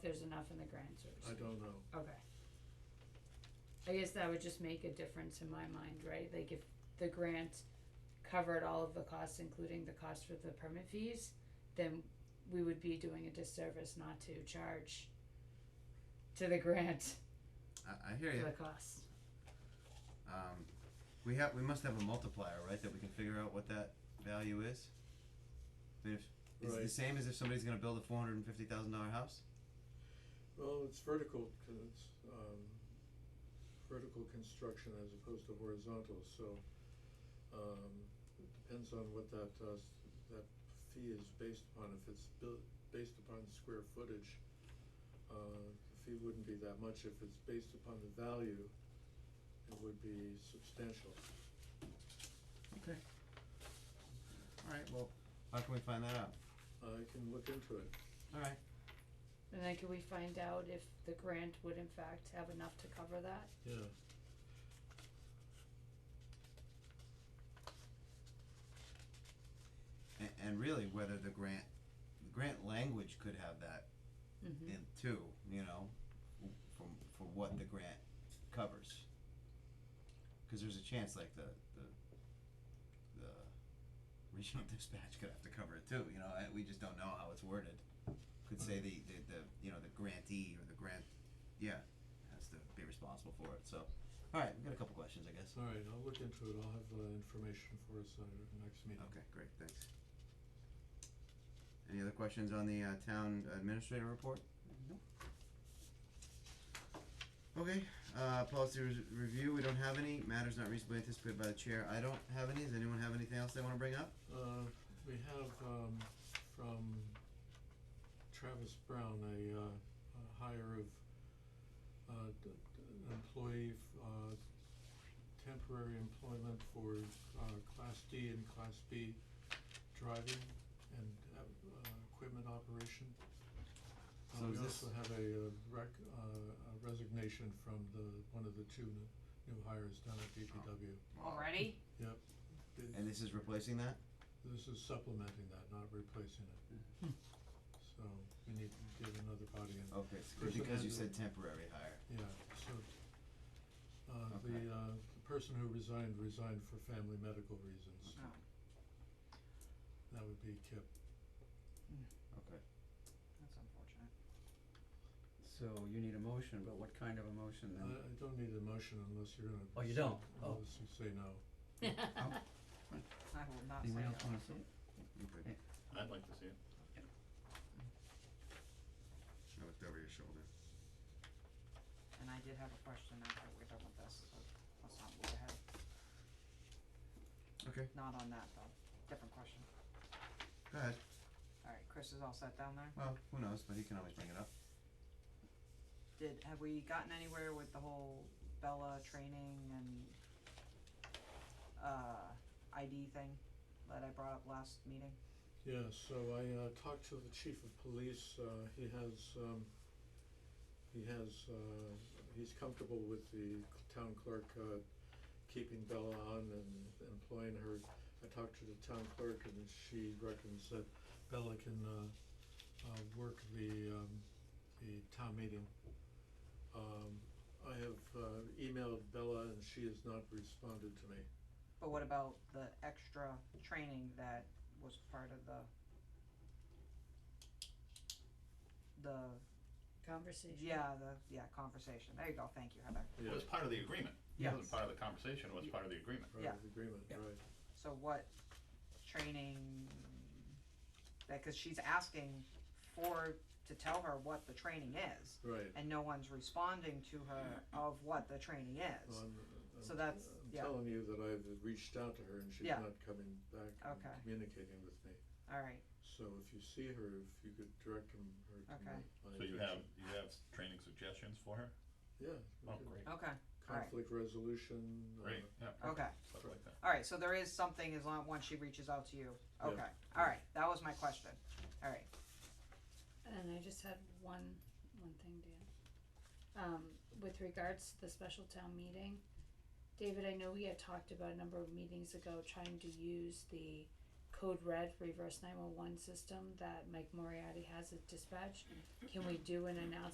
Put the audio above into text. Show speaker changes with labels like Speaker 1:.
Speaker 1: there's enough in the grand search.
Speaker 2: I don't know.
Speaker 1: Okay. I guess that would just make a difference in my mind, right? Like if the grant covered all of the costs, including the cost for the permit fees, then we would be doing a disservice not to charge to the grant
Speaker 3: I, I hear
Speaker 1: for
Speaker 3: you.
Speaker 1: the costs.
Speaker 3: Um, we have, we must have a multiplier, right, that we can figure out what that value is? I mean, if, is it the
Speaker 2: Right.
Speaker 3: same as if somebody's gonna build a four hundred and fifty thousand dollar house?
Speaker 2: Well, it's vertical, con- it's, um, vertical construction as opposed to horizontal, so, um, it depends on what that, uh, s- that fee is based upon. If it's built, based upon square footage, uh, the fee wouldn't be that much. If it's based upon the value, it would be substantial.
Speaker 3: Okay. Alright, well, how can we find that out?
Speaker 2: I can look into it.
Speaker 3: Alright,
Speaker 1: And then can we find out if the grant would in fact have enough to cover that?
Speaker 2: Yeah.
Speaker 3: and, and really whether the grant, the grant language could have that
Speaker 1: Mm-hmm.
Speaker 3: in too, you know, w- from, for what the grant covers. Cause there's a chance like the, the, the regional dispatch could have to cover it too, you know, I, we just don't know how it's worded. Could say the, the, the, you know, the grantee or the grant, yeah, has to be responsible for it, so, alright, we got a couple questions, I guess.
Speaker 2: All right, I'll look into it. I'll have the information for us at our next meeting.
Speaker 3: Okay, great, thanks. Any other questions on the uh town administrator report? Nope. Okay, uh policy res- review, we don't have any, matters not reasonably anticipated by the chair, I don't have any, does anyone have anything else they wanna bring up?
Speaker 2: Uh, we have, um, from Travis Brown, a, uh, a hire of, uh, d- d- an employee, f- uh, temporary employment for, uh, Class D and Class B driving and, uh, uh, equipment operation. Uh,
Speaker 3: So is
Speaker 2: we
Speaker 3: this-
Speaker 2: also have a, uh, rec, uh, a resignation from the, one of the two n- new hires down at DPW.
Speaker 1: Already?
Speaker 2: Yep. Th-
Speaker 3: And this is replacing that?
Speaker 2: this is supplementing that, not replacing it. So we need to get another body in.
Speaker 3: Okay, it's
Speaker 2: Person
Speaker 3: because you
Speaker 2: has
Speaker 3: said temporary hire,
Speaker 2: Yeah, so, uh, the,
Speaker 3: Okay.
Speaker 2: uh, the person who resigned, resigned for family medical reasons.
Speaker 4: Oh.
Speaker 2: That would be Kip.
Speaker 3: okay.
Speaker 4: That's unfortunate.
Speaker 5: So you need a motion, but what kind of a motion
Speaker 2: I,
Speaker 5: then?
Speaker 2: I don't need a motion unless you're gonna.
Speaker 5: Oh, you
Speaker 2: say-
Speaker 5: don't? Oh.
Speaker 2: Unless you say no.
Speaker 4: I will not say
Speaker 5: Anyone else
Speaker 4: no.
Speaker 5: wanna see it?
Speaker 3: Okay,
Speaker 5: Yeah.
Speaker 6: I'd like to see it.
Speaker 3: I looked over your shoulder.
Speaker 4: And I did have a question after we're done with this, but let's not move ahead.
Speaker 3: Okay,
Speaker 4: Not on that though, different question.
Speaker 3: go ahead,
Speaker 4: Alright, Chris is all set down there?
Speaker 3: well, who knows, but he can always bring it up.
Speaker 4: Did, have we gotten anywhere with the whole Bella training and uh ID thing that I brought up last meeting?
Speaker 2: Yeah, so I uh talked to the chief of police, uh he has um he has uh he's comfortable with the town clerk uh keeping Bella on and employing her. I talked to the town clerk and she reckons that Bella can uh uh work the um the town meeting. Um I have uh emailed Bella and she has not responded to me.
Speaker 4: But what about the extra training that was part of the the,
Speaker 1: Conversation.
Speaker 4: yeah, the, yeah, conversation, there you go, thank you Heather.
Speaker 6: It was part of the agreement. It wasn't part of the conversation, it was
Speaker 4: Yeah.
Speaker 6: part of the agreement.
Speaker 2: Part
Speaker 4: Yeah.
Speaker 2: of the agreement,
Speaker 5: Yeah.
Speaker 2: right.
Speaker 4: So what training, that, cause she's asking for, to tell her what the training is,
Speaker 2: Right.
Speaker 4: and no one's responding to her of what the training is.
Speaker 2: Well, I'm,
Speaker 4: So
Speaker 2: I'm-
Speaker 4: that's-
Speaker 2: I'm
Speaker 4: yeah.
Speaker 2: telling you that I've reached out to her and she's
Speaker 4: Yeah.
Speaker 2: not coming back and
Speaker 4: Okay.
Speaker 2: communicating with me.
Speaker 4: Alright,
Speaker 2: So if you see her, if you could direct him, her to
Speaker 4: Okay.
Speaker 2: my, my
Speaker 6: So you have,
Speaker 2: attention.
Speaker 6: you have s- training suggestions for her?
Speaker 2: Yeah. we
Speaker 6: Oh,
Speaker 2: could-
Speaker 6: great,
Speaker 4: okay, alright.
Speaker 2: Conflict resolution. uh,
Speaker 6: great, yeah,
Speaker 4: okay,
Speaker 6: stuff like that.
Speaker 4: alright, so there is something as long, once she reaches out to you,
Speaker 2: Yeah.
Speaker 4: okay, alright, that was my question, alright.
Speaker 1: And I just had one, one thing, Dan. Um, with regards to the special town meeting, David, I know we had talked about a number of meetings ago trying to use the code red reverse nine one one system that Mike Moriarty has at dispatch, can we do an announcement